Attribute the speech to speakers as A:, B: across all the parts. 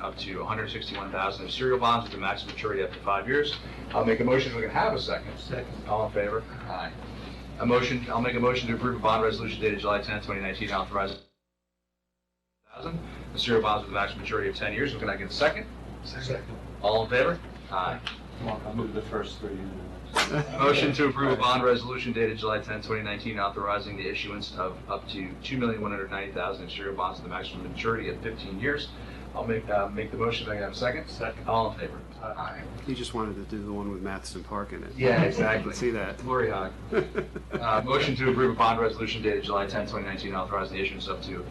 A: up to 161,000 of serial bonds with a maximum maturity up to five years. I'll make a motion if we can have a second.
B: Second.
A: All in favor? Aye. A motion, I'll make a motion to approve a bond resolution dated July 10, 2019, authorizing 1,000 of serial bonds with a maximum maturity of 10 years. Can I get a second?
B: Second.
A: All in favor? Aye.
C: I'll move the first three. and then-
A: Motion to approve a bond resolution dated July 10, 2019, authorizing the issuance of up to $2,190,000 in serial bonds with a maximum maturity of 15 years. I'll make, uh, make the motion, if I can have a second.
B: Second.
A: All in favor?
B: Aye.
D: You just wanted to do the one with Matheson Park in it.
A: Yeah,
D: I
A: exactly.
D: can see that.
A: Lori Hawk. Uh, Motion to approve a bond resolution dated July 10, 2019, authorizing the issuance up to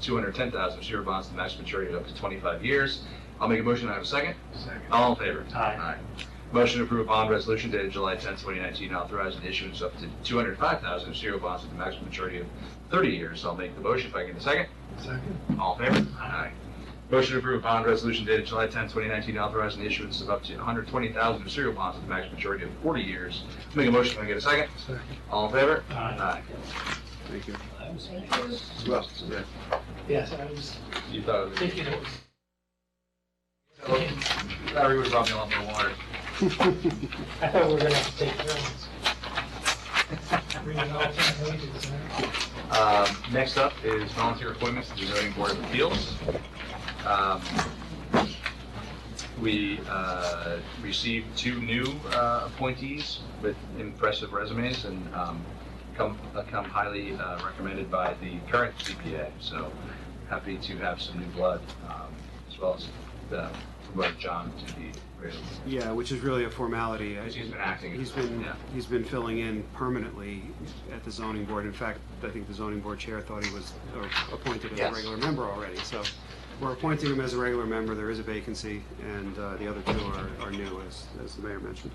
A: 210,000 of serial bonds with a maximum maturity of up to 25 years. I'll make a motion, I have a second.
B: Second.
A: All in favor?
B: Aye.
A: Motion to approve a bond resolution dated July 10, 2019, authorizing the issuance up to 205,000 of serial bonds with a maximum maturity of 30 years. I'll make the motion if I can get a second.
B: Second.
A: All in favor? Aye. Motion to approve a bond resolution dated July 10, 2019, authorizing the issuance of up to 120,000 of serial bonds with a maximum maturity of 40 years. Make a motion if I can get a second.
B: Second.
A: All in favor?
B: Aye.
D: Thank you.
B: I was,
A: Well,
B: yes, I was
A: You thought it
B: thinking it was.
A: was. Larry would have brought me a lot more water.
B: I thought we were gonna have to take turns. Read it all ten pages, huh?
A: Um, Next up is volunteer appointments to the zoning board of appeals. Um, We uh, received two new uh, appointees with impressive resumes and um, come uh, come highly uh, recommended by the current CPA. So happy to have some new blood, um, as well as uh, promote John to the regular.
D: Yeah, which is really a formality. I-
A: He's been acting.
D: He's been,
A: Yeah.
D: he's been filling in permanently at the zoning board. In fact, I think the zoning board chair thought he was uh, appointed as a
A: Yes.
D: regular member already. So we're appointing him as a regular member. There is a vacancy, and uh, the other two are, are new, as, as the mayor mentioned.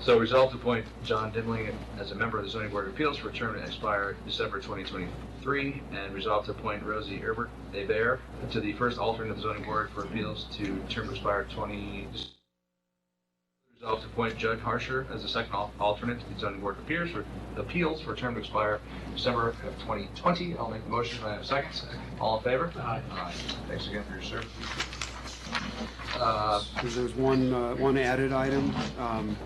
A: So resolved to appoint John Dimling as a member of the zoning board of appeals for a term to expire December 2023, and resolved to appoint Rosie Herbert Abear to the first alternate of the zoning board for appeals to term to expire 20. Resolved to appoint Judd Harsher as the second al- alternate to the zoning board of appeals for appeals for a term to expire December of 2020. I'll make a motion. Can I have a second? All in favor?
B: Aye.
A: Aye. Thanks again for your service. Uh,
D: There's there's one, uh, one added item, um,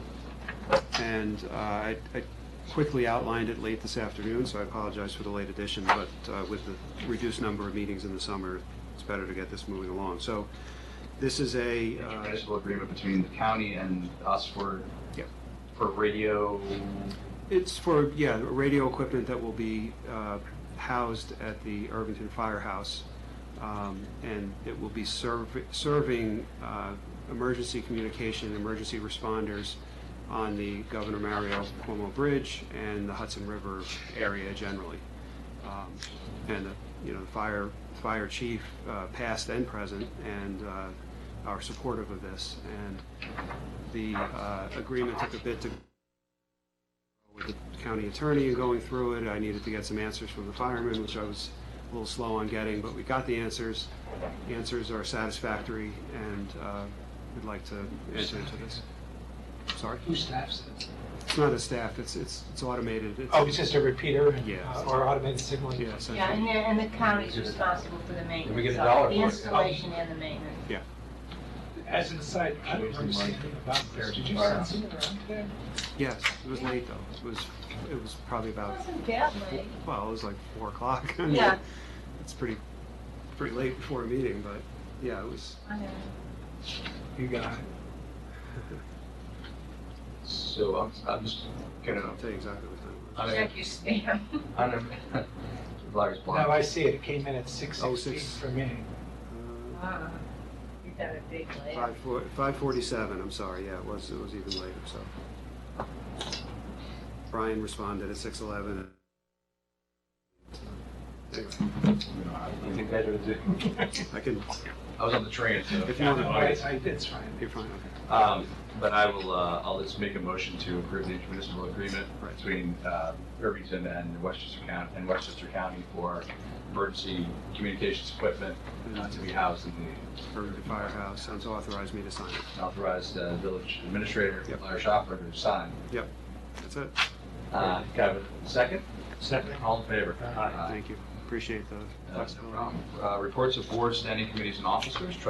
D: and uh, I I quickly outlined it late this afternoon, so I apologize for the late addition, but uh, with the reduced number of meetings in the summer, it's better to get this moving along. So this is a, uh,
A: Municipal agreement between the county and us for,
D: Yeah.
A: for radio,
D: it's for, yeah, radio equipment that will be uh, housed at the Irvington Firehouse, um, and it will be serv- serving uh, emergency communication, emergency responders on the Governor Mario Cuomo Bridge and the Hudson River area generally. Um, And, uh, you know, the fire, fire chief, uh, past and present, and uh, are supportive of this. And the uh, agreement took a bit to with the county attorney and going through it. I needed to get some answers from the firemen, which I was a little slow on getting, but we got the answers. The Answers are satisfactory, and uh, we'd like to enter into this. Sorry?
B: Who staffs it?
D: It's not a staff, it's, it's it's automated. It's-
B: Oh, it's just a repeater and,
D: Yeah.
B: uh, or automated signaling.
D: Yeah, essentially.
E: Yeah, and the, and the county's responsible for the maintenance.
A: we get a
E: of it,
A: dollar for it?
E: The installation and the maintenance.
B: As an aside, I don't remember seeing anything about this. Did you send something around today?
D: Yes, it was late, though. It was, it was probably about,
E: Wasn't that late.
D: well, it was like 4 o'clock. I mean,
E: Yeah.
D: It's pretty, pretty late before a meeting, but, yeah, it was,
E: I know.
B: You got it.
A: so I'm, I'm just gonna,
D: I'll tell you exactly what time it was.
A: I'm gonna,
E: Check your spam.
A: I'm gonna, blogger's
B: Now I
A: blind.
B: see it. It came in at six
D: Oh,
B: sixteen
D: six.
B: for me.
D: Uh,
E: Wow. You got a big layer.
D: Five four- 547, I'm sorry, yeah, it was, it was even later, so. Brian responded at 6:11. Anyway,
C: Anything better to do?
D: I can,
A: I was on the train, so,
D: if you want to,
B: No, I, I, it's fine.
D: you're fine, okay.
A: um, but I will, uh, I'll just make a motion to approve the intermunicipal agreement
D: Right.
A: between, uh, Irvington and Westchester County, and Westchester County for emergency communications equipment uh, to be housed in the
D: Urban Firehouse, sounds authorized me to sign it.
A: authorized uh, village administrator,
D: Yep.
A: Larry Shopper, to sign.
D: That's it,
A: Uh, can I have a second?
B: Second.
A: All in favor?
B: Aye.
D: thank you, appreciate the
A: Uh,
D: flexibility.
A: uh, Reports of board standing committees and officers,